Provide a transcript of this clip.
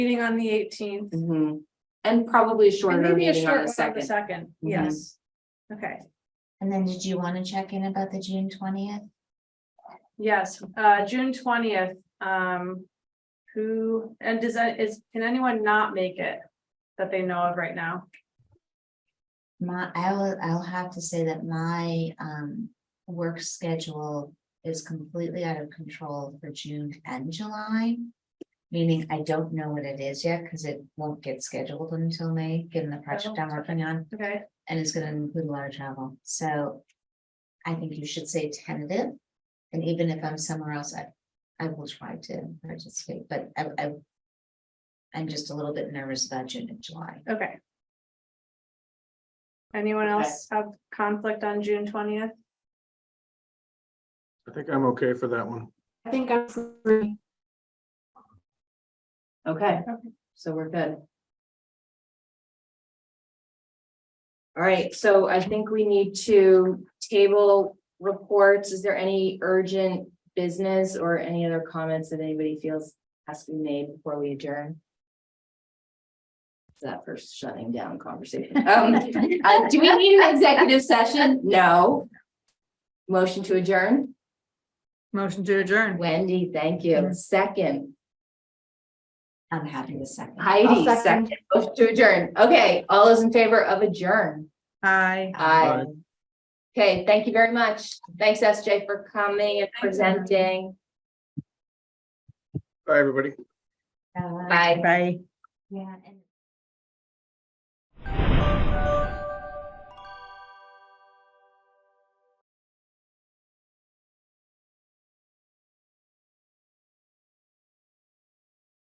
meeting on the eighteenth. Mhm. And probably a And shorter maybe a meeting short on one the on the second. second, Mhm. yes. Okay, And then did you want to check in about the June twentieth? yes, uh, June twentieth, um. Who, and does, that is, can anyone not make it that they know of right now? My, I will, I'll have to say that my um work schedule is completely out of control for June and July. Meaning I don't know what it is yet because it won't get scheduled until May, given the project I'm working on, Okay, and it's gonna include a lot of travel, so. I think you should say tentative, and even if I'm somewhere else, I I will try to participate, but I I. I'm just a little bit nervous about June and July. okay. Anyone Okay. else have conflict on June twentieth? I think I'm okay for that one. I think I'm free. Okay, Okay. so we're good. All right, so I think we need to table reports. Is there any urgent business or any other comments that anybody feels has to be made before we adjourn? It's That first shutting down conversation. Um, uh, do we need an executive session? No. Motion to adjourn? Motion to adjourn. Wendy, thank you. Second, I'm happy to second. Heidi, second, Motion to adjourn. Okay, all those in favor of adjourn? Aye. Uh, Aye. Okay, thank you very much. Thanks, SJ, for coming and presenting. Bye, everybody. Uh, Bye. Bye. Yeah, and.